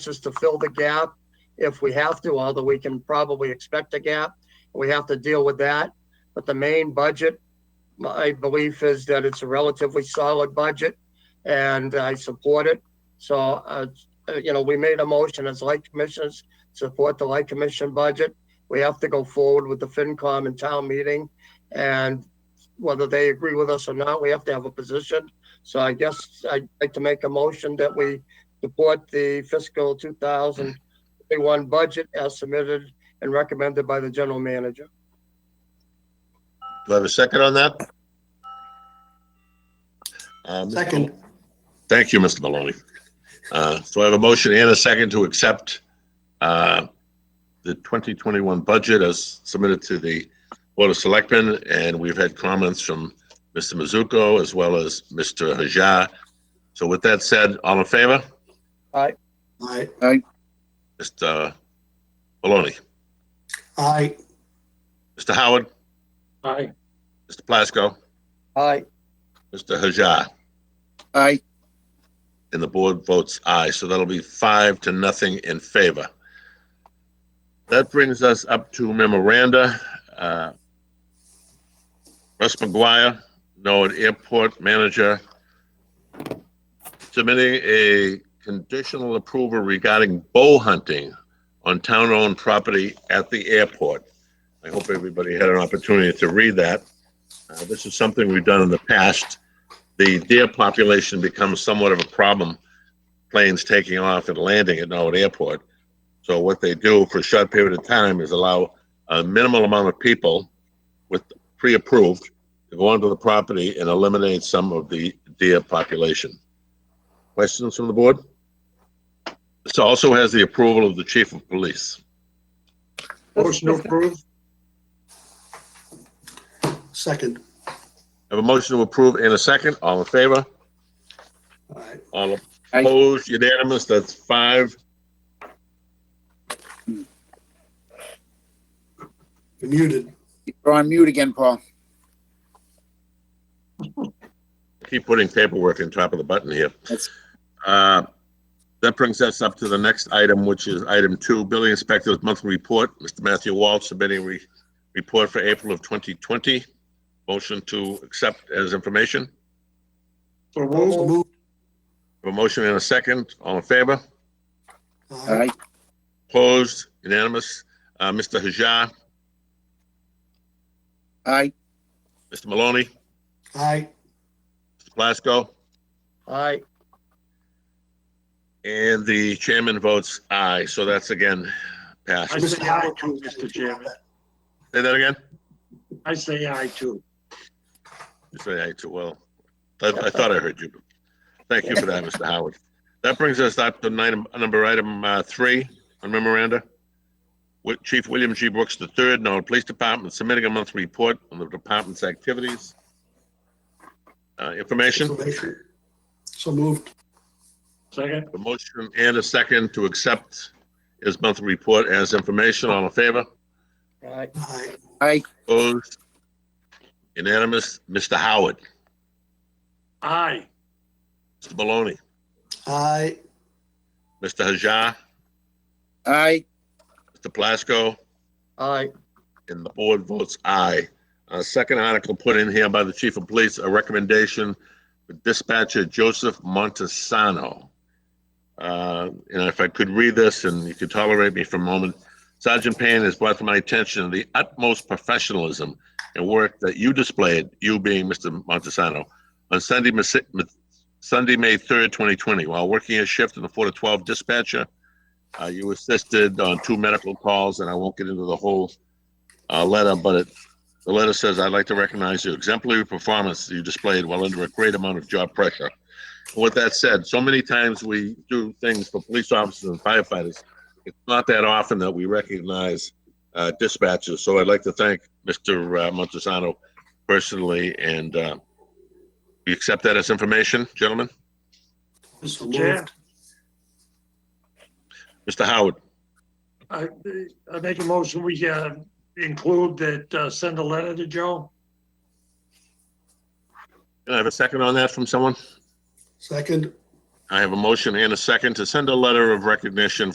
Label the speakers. Speaker 1: just to fill the gap if we have to, although we can probably expect a gap. We have to deal with that. But the main budget, my belief is that it's a relatively solid budget and I support it. So, uh, you know, we made a motion as light commissioners, support the light commission budget. We have to go forward with the FinCom and town meeting. And whether they agree with us or not, we have to have a position. So I guess I'd like to make a motion that we support the fiscal 2021 budget as submitted and recommended by the general manager.
Speaker 2: Do I have a second on that? Uh, Mr.
Speaker 3: Second,
Speaker 2: Thank you, Mr. Maloney. Uh, So I have a motion and a second to accept uh, the 2021 budget as submitted to the Board of Selectmen, and we've had comments from Mr. Mizuko as well as Mr. Hajar. So with that said, all in favor?
Speaker 3: aye,
Speaker 2: Mr. Maloney,
Speaker 3: aye,
Speaker 2: Mr. Howard,
Speaker 1: Aye.
Speaker 2: Mr. Plasko,
Speaker 1: Aye.
Speaker 2: Mr. Hajar.
Speaker 4: Aye.
Speaker 2: And the board votes aye, so that'll be five to nothing in favor. That brings us up to memoranda. uh, Russ McGuire, Norwood Airport Manager, submitting a conditional approval regarding bow hunting on town-owned property at the airport. I hope everybody had an opportunity to read that. Uh, This is something we've done in the past the deer population becomes somewhat of a problem, planes taking off and landing at Norwood Airport. So what they do for a short period of time is allow a minimal amount of people with pre-approved to go onto the property and eliminate some of the deer population. Questions from the board? This also has the approval of the chief of police.
Speaker 3: Motion approved. second,
Speaker 2: Have a motion to approve in a second. All in favor?
Speaker 3: aye,
Speaker 2: All
Speaker 4: Aye.
Speaker 2: opposed, unanimous, that's five.
Speaker 3: You're muted,
Speaker 4: You're on mute again, Paul.
Speaker 2: Keep putting paperwork on top of the button here.
Speaker 4: That's-
Speaker 2: Uh, That brings us up to the next item, which is item two, building inspector's monthly report. Mr. Matthew Walsh submitting re- report for April of 2020. Motion to accept as information.
Speaker 1: So
Speaker 3: so moved,
Speaker 2: A motion and a second. All in favor?
Speaker 3: aye,
Speaker 4: Aye.
Speaker 2: Opposed? Unanimous? Uh, Mr. Hajar,
Speaker 4: Aye.
Speaker 2: Mr. Maloney,
Speaker 3: aye,
Speaker 2: Mr. Plasko,
Speaker 1: Aye.
Speaker 2: and the chairman votes aye. So that's again
Speaker 5: I
Speaker 2: passed.
Speaker 5: say aye too, Mr. Chairman.
Speaker 2: Say that again?
Speaker 5: I say aye too.
Speaker 2: You say aye too well. I, I thought I heard you. Thank you for that, Mr. Howard. That brings us up to nine, number item, uh, three on memoranda. With Chief William G. Brooks III, Norwood Police Department, submitting a monthly report on the department's activities. Uh, information,
Speaker 3: information, so moved,
Speaker 5: Second,
Speaker 2: a motion and a second to accept his monthly report as information. All in favor?
Speaker 1: Aye.
Speaker 3: aye,
Speaker 4: Aye.
Speaker 2: Opposed? Unanimous. Mr. Howard,
Speaker 5: aye,
Speaker 2: Mr. Maloney,
Speaker 3: aye,
Speaker 2: Mr. Hajar,
Speaker 4: Aye.
Speaker 2: Mr. Plasko,
Speaker 1: Aye.
Speaker 2: and the board votes aye. Uh, second article put in here by the chief of police, a recommendation for dispatcher Joseph Montesano. Uh, and if I could read this and you could tolerate me for a moment. Sergeant Payne has brought to my attention the utmost professionalism and work that you displayed, you being Mr. Montesano, on Sunday, Mas- Ma- Sunday, May 3rd, 2020, while working a shift in the 4 to 12 dispatcher. Uh, you assisted on two medical calls, and I won't get into the whole uh, letter, but it, the letter says, I'd like to recognize your exemplary performance you displayed while under a great amount of job pressure. With that said, so many times we do things for police officers and firefighters. It's not that often that we recognize uh, dispatchers, so I'd like to thank Mr. uh, Montesano personally, and uh, we accept that as information, gentlemen.
Speaker 3: so
Speaker 5: Chair.
Speaker 3: moved,
Speaker 2: Mr. Howard,
Speaker 5: I, I make a motion, we, uh, include that, uh, send a letter to Joe.
Speaker 2: can I have a second on that from someone?
Speaker 3: second,
Speaker 2: I have a motion and a second to send a letter of recognition